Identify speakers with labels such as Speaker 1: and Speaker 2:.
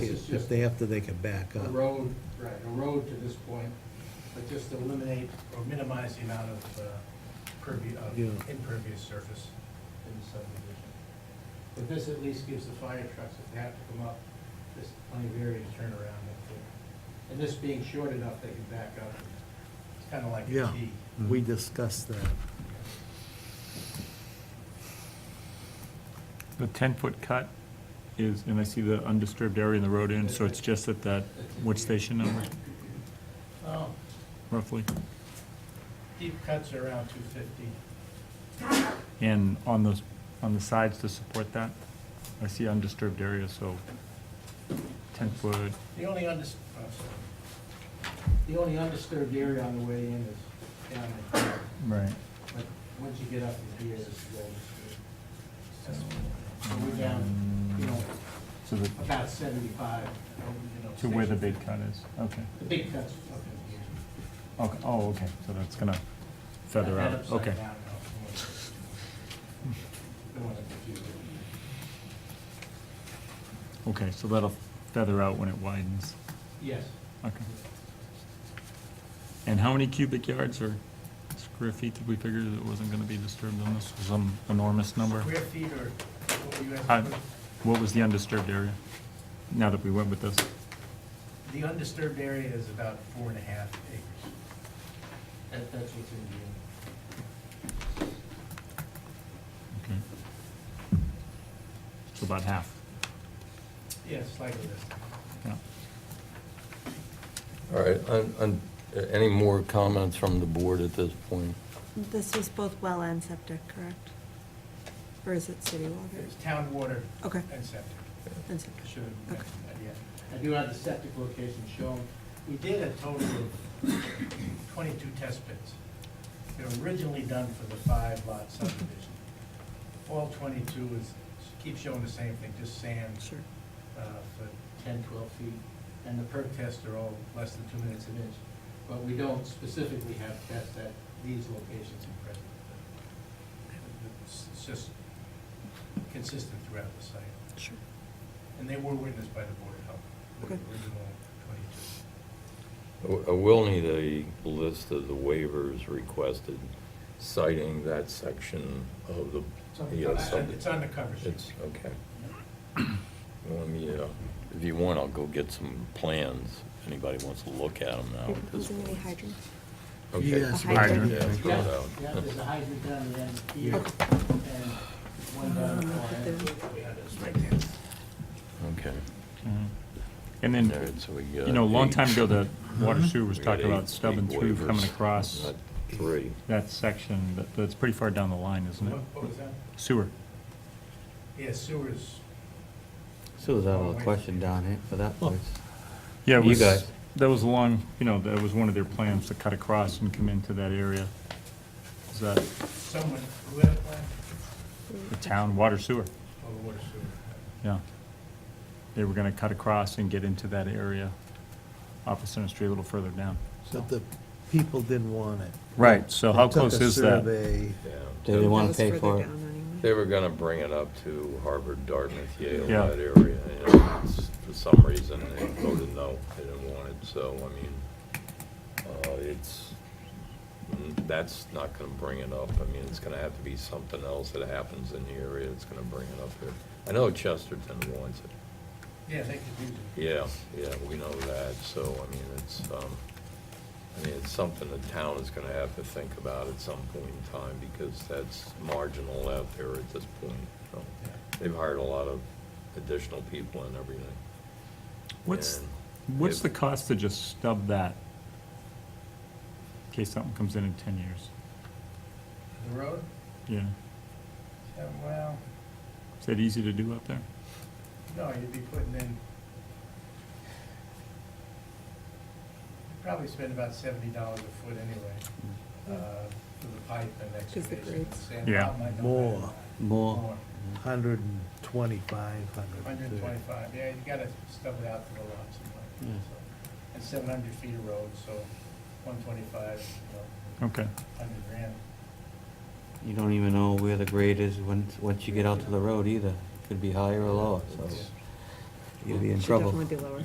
Speaker 1: If they have to, they can back
Speaker 2: a
Speaker 1: up.
Speaker 2: road, right, a road to this point, but just to eliminate or minimize the amount of uh, pervi- of
Speaker 1: Yeah.
Speaker 2: impervious surface in the subdivision. But this at least gives the fire trucks, if they have to come up, this plenty of area to turn around up there. And this being short enough, they can back up. It's kind of like a
Speaker 1: Yeah,
Speaker 2: T.
Speaker 1: we discussed that.
Speaker 3: The ten-foot cut is, and I see the undisturbed area in the road end, so it's just at that, what station number,
Speaker 2: Oh,
Speaker 3: roughly?
Speaker 2: deep cuts are around two fifty.
Speaker 3: And on those, on the sides to support that, I see undisturbed area, so ten-foot,
Speaker 2: The only undis, oh, sorry. The only undisturbed area on the way in is down there.
Speaker 3: right.
Speaker 2: But once you get up in here, it's all disturbed. So we're down, you know,
Speaker 3: To the,
Speaker 2: about seventy-five, you know.
Speaker 3: to where the
Speaker 2: 60.
Speaker 3: big cut is, okay,
Speaker 2: The big cut's up in here.
Speaker 3: okay, oh, okay, so that's gonna feather
Speaker 2: That
Speaker 3: out,
Speaker 2: upside
Speaker 3: okay.
Speaker 2: down, no, Don't want to confuse it.
Speaker 3: Okay, so that'll feather out when it widens,
Speaker 2: Yes.
Speaker 3: okay. And how many cubic yards or square feet did we figure that wasn't gonna be disturbed on this, some enormous number?
Speaker 2: Square feet or what were you
Speaker 3: Uh,
Speaker 2: asking?
Speaker 3: What was the undisturbed area, now that we went with this?
Speaker 2: The undisturbed area is about four and a half acres. That, that's what's in here.
Speaker 3: Okay. So about half,
Speaker 2: Yes, slightly less.
Speaker 3: yeah.
Speaker 4: All right, un- un- any more comments from the board at this point?
Speaker 5: This was both well and septic, correct? Or is it city water?
Speaker 2: It's town water
Speaker 5: Okay,
Speaker 2: and septic.
Speaker 5: and septic.
Speaker 2: I should have
Speaker 5: Okay.
Speaker 2: mentioned that, yeah. I do have the septic location shown. We did a total of twenty-two test pits. They were originally done for the five lot subdivision. All twenty-two is, keep showing the same thing, just sand
Speaker 5: Sure.
Speaker 2: uh, for 10, 12 feet, and the perk tests are all less than two minutes an inch. But we don't specifically have tests at these locations in present. It's it's just consistent throughout the site.
Speaker 5: Sure.
Speaker 2: And they were witnessed by the Board of Health, the
Speaker 5: Okay.
Speaker 2: original 22.
Speaker 4: I will need a list of the waivers requested citing that section of the,
Speaker 2: It's on the-
Speaker 4: Yeah, it's on-
Speaker 2: It's on the cover sheet.
Speaker 4: it's, uh, okay. Let me, uh, if you want, I'll go get some plans, if anybody wants to look at them now at this
Speaker 5: Is there any
Speaker 4: point.
Speaker 5: hydrant?
Speaker 4: Okay.
Speaker 1: Yes,
Speaker 5: A hydrant.
Speaker 4: Yeah, throw it
Speaker 2: Yeah,
Speaker 4: out.
Speaker 2: yeah, there's a hydrant down the end here,
Speaker 1: Yeah.
Speaker 2: and one uh, down the far end.
Speaker 4: Okay.
Speaker 3: Mhm. And
Speaker 4: All
Speaker 3: then,
Speaker 4: right, so we
Speaker 3: you
Speaker 4: got
Speaker 3: know, a long
Speaker 4: eight.
Speaker 3: time ago, the
Speaker 4: Mm-hmm.
Speaker 3: water sewer was
Speaker 4: We got
Speaker 3: talking about
Speaker 4: eight-
Speaker 3: stub and
Speaker 4: eight
Speaker 3: through coming
Speaker 4: waivers.
Speaker 3: across
Speaker 4: Not Three.
Speaker 3: that section, that, that's pretty far down the line, isn't
Speaker 2: What
Speaker 3: it?
Speaker 2: what was that?
Speaker 3: Sewer,
Speaker 2: Yeah, sewers,
Speaker 6: So is that all the question down here for that place?
Speaker 3: yeah, it
Speaker 6: You
Speaker 3: was,
Speaker 6: guys.
Speaker 3: that was along, you know, that was one of their plans to cut across and come into that area. Is that
Speaker 2: someone, who had a plan?
Speaker 3: the town water sewer?
Speaker 2: Oh, the water sewer.
Speaker 3: Yeah. They were gonna cut across and get into that area off of Center Street a little further down.
Speaker 1: But the people didn't want it.
Speaker 3: Right, so how
Speaker 1: They took
Speaker 3: close
Speaker 1: a
Speaker 3: is that?
Speaker 1: survey.
Speaker 6: They didn't
Speaker 5: That
Speaker 6: want
Speaker 5: was
Speaker 6: to pay
Speaker 5: further
Speaker 6: for it.
Speaker 5: down anyway.
Speaker 4: They were gonna bring it up to Harvard, Dartmouth, Yale,
Speaker 3: Yeah.
Speaker 4: that area, and it's- for some reason, they voted no, they didn't want it, so, I mean, uh, it's, mm, that's not gonna bring it up, I mean, it's gonna have to be something else that happens in the area that's gonna bring it up here. I know Chesterton wants it,
Speaker 2: Yeah, they could use it.
Speaker 4: yeah, yeah, we know that, so, I mean, it's, um, I mean, it's something the town is gonna have to think about at some point in time, because that's marginal out there at this point, so. They've hired a lot of additional people and everything.
Speaker 3: What's,
Speaker 4: And
Speaker 3: what's
Speaker 4: if-
Speaker 3: the cost to just stub that? In case something comes in in ten years,
Speaker 2: The road,
Speaker 3: yeah.
Speaker 2: Yeah, well,
Speaker 3: Is that easy to do out there?
Speaker 2: no, you'd be putting in, you'd probably spend about seventy dollars a foot anyway, uh, for the pipe and
Speaker 5: the
Speaker 2: excavation.
Speaker 5: grades.
Speaker 2: Sand
Speaker 3: Yeah.
Speaker 2: pile might not be
Speaker 1: More.
Speaker 6: More,
Speaker 1: Hundred and twenty-five,
Speaker 2: that.
Speaker 1: hundred
Speaker 2: Hundred
Speaker 1: and
Speaker 2: and
Speaker 1: thirty.
Speaker 2: twenty-five, yeah, you gotta stub it out to the lots and
Speaker 6: Yeah.
Speaker 2: like, so. And seven hundred feet of road, so one twenty-five, you know,
Speaker 3: Okay,
Speaker 2: hundred grand.
Speaker 6: you don't even know where the grade is once, once you get out to the road either. Could be higher or lower, so
Speaker 2: Yeah.
Speaker 6: you'll be in
Speaker 5: Should
Speaker 6: trouble.
Speaker 5: definitely be lower.